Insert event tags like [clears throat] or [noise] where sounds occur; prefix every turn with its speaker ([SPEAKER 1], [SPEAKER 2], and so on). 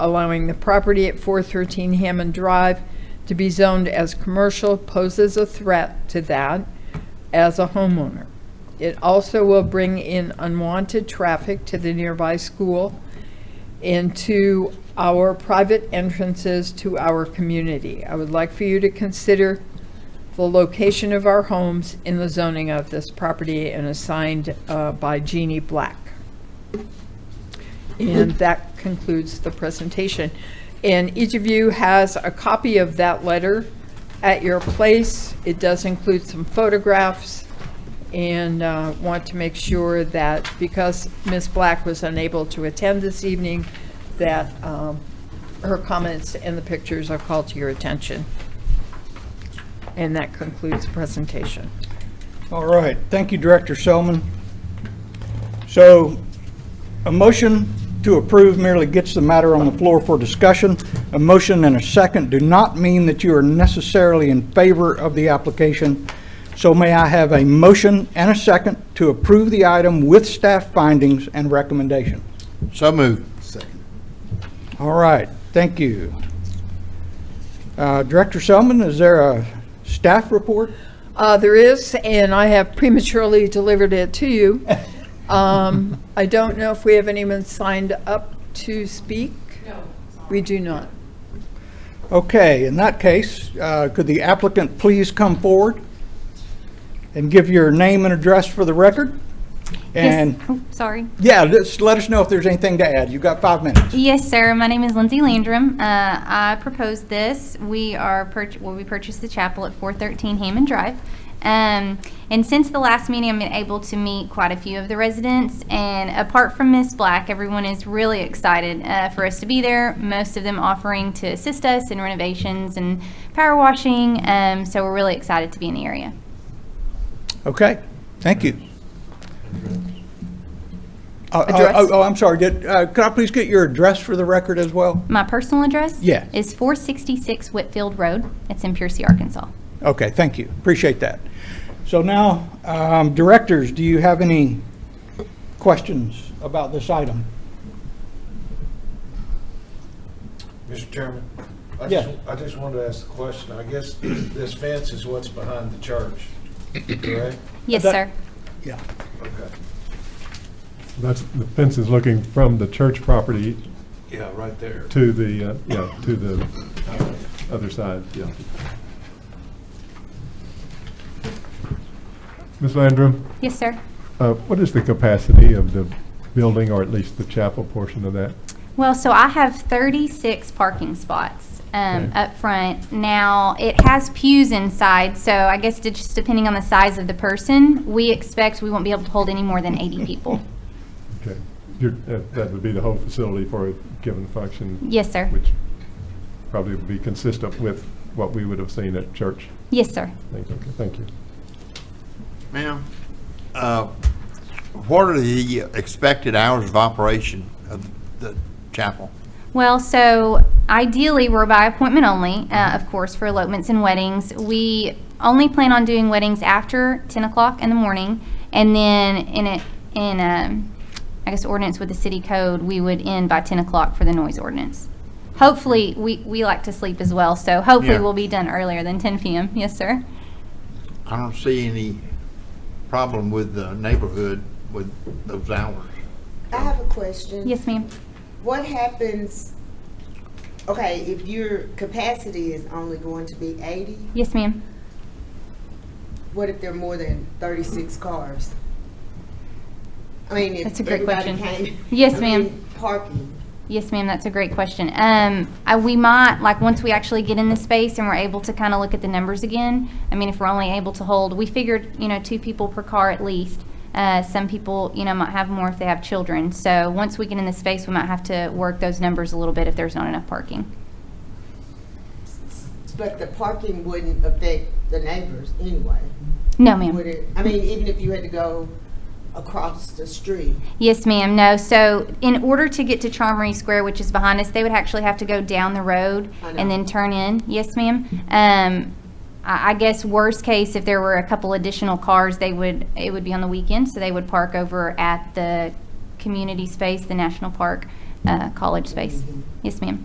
[SPEAKER 1] allowing the property at 413 Hammond Drive to be zoned as commercial poses a threat to that as a homeowner. It also will bring in unwanted traffic to the nearby school into our private entrances to our community. I would like for you to consider the location of our homes in the zoning of this property and assigned uh, by Jeannie Black. And that concludes the presentation. And each of you has a copy of that letter at your place. It does include some photographs and uh, want to make sure that, because Ms. Black was unable to attend this evening, that um, her comments and the pictures are called to your attention. And that concludes the presentation.
[SPEAKER 2] All right, thank you, Director Selman. So, a motion to approve merely gets the matter on the floor for discussion. A motion and a second do not mean that you are necessarily in favor of the application. So may I have a motion and a second to approve the item with staff findings and recommendation?
[SPEAKER 3] So moved. Second.
[SPEAKER 2] All right, thank you. Uh, Director Selman, is there a staff report?
[SPEAKER 1] Uh, There is, and I have prematurely delivered it to you. Um, I don't know if we have anyone signed up to speak? No. We do not.
[SPEAKER 2] Okay, in that case, uh, could the applicant please come forward and give your name and address for the record?
[SPEAKER 4] Yes.
[SPEAKER 2] And,
[SPEAKER 4] Oh, Sorry.
[SPEAKER 2] yeah, just let us know if there's anything to add. You've got five minutes.
[SPEAKER 4] Yes, sir. My name is Lindsay Landrum. Uh, I proposed this. We are, purch- well, we purchased the chapel at 413 Hammond Drive. Um, And since the last meeting, I've been able to meet quite a few of the residents. And apart from Miss Black, everyone is really excited uh, for us to be there. Most of them offering to assist us in renovations and power washing. Um, So we're really excited to be in the area.
[SPEAKER 2] Okay, thank you. Uh, oh,
[SPEAKER 1] Address?
[SPEAKER 2] Oh, oh, I'm sorry, did, uh, could I please get your address for the record as well?
[SPEAKER 4] My personal address?
[SPEAKER 2] Yeah.
[SPEAKER 4] Is 466 Whitfield Road. It's in Piercy, Arkansas.
[SPEAKER 2] Okay, thank you, appreciate that. So now, um, directors, do you have any questions about this item?
[SPEAKER 5] Mr. Chairman? I
[SPEAKER 2] Yeah.
[SPEAKER 5] just, I just wanted to ask the question. I guess this fence is what's behind the church, [clears throat] correct?
[SPEAKER 4] Yes,
[SPEAKER 2] That-
[SPEAKER 4] sir.
[SPEAKER 2] Yeah.
[SPEAKER 5] Okay.
[SPEAKER 6] That's, the fence is looking from the church property
[SPEAKER 5] Yeah, right there.
[SPEAKER 6] to the, uh, yeah, to the other side, yeah. Ms. Landrum,
[SPEAKER 4] Yes, sir.
[SPEAKER 6] uh, what is the capacity of the building, or at least the chapel portion of that?
[SPEAKER 4] Well, so I have 36 parking spots um,
[SPEAKER 6] Okay.
[SPEAKER 4] up front. Now, it has pews inside, so I guess it just depending on the size of the person, we expect we won't be able to hold any more than 80 people.
[SPEAKER 6] [laughs] Okay, You're- that that would be the whole facility for a given function,
[SPEAKER 4] Yes, sir.
[SPEAKER 6] which probably would be consistent with what we would have seen at church.
[SPEAKER 4] Yes, sir.
[SPEAKER 6] Thank you. Thank you.
[SPEAKER 3] Ma'am, uh, what are the expected hours of operation of the chapel?
[SPEAKER 4] Well, so ideally, we're by appointment only, uh, of course, for elopements and weddings. We only plan on doing weddings after 10 o'clock in the morning, and then in it, in, um, I guess, ordinance with the city code, we would end by 10 o'clock for the noise ordinance. Hopefully, we, we like to sleep as well, so hopefully
[SPEAKER 3] Yeah.
[SPEAKER 4] we'll be done earlier than 10 PM. Yes, sir?
[SPEAKER 3] I don't see any problem with the neighborhood with those hours.
[SPEAKER 7] I have a question.
[SPEAKER 4] Yes, ma'am.
[SPEAKER 7] What happens, okay, if your capacity is only going to be eighty,
[SPEAKER 4] Yes, ma'am.
[SPEAKER 7] what if there are more than thirty-six cars? I mean, if
[SPEAKER 4] That's a great
[SPEAKER 7] everybody
[SPEAKER 4] question.
[SPEAKER 7] came-
[SPEAKER 4] Yes,
[SPEAKER 7] I mean,
[SPEAKER 4] ma'am.
[SPEAKER 7] Parking.
[SPEAKER 4] Yes, ma'am, that's a great question. Um, I- we might, like, once we actually get in the space and we're able to kind of look at the numbers again, I mean, if we're only able to hold, we figured, you know, two people per car at least. Uh, some people, you know, might have more if they have children. So once we get in the space, we might have to work those numbers a little bit if there's not enough parking.
[SPEAKER 7] But the parking wouldn't affect the neighbors anyway,
[SPEAKER 4] No,
[SPEAKER 7] would
[SPEAKER 4] ma'am.
[SPEAKER 7] it? I mean, even if you had to go across the street.
[SPEAKER 4] Yes, ma'am, no. So in order to get to Charmery Square, which is behind us, they would actually have to go down the road
[SPEAKER 7] I know.
[SPEAKER 4] and then turn in. Yes, ma'am. Um, I, I guess worst case, if there were a couple additional cars, they would, it would be on the weekend, so they would park over at the community space, the national park. uh, college space. Yes, ma'am.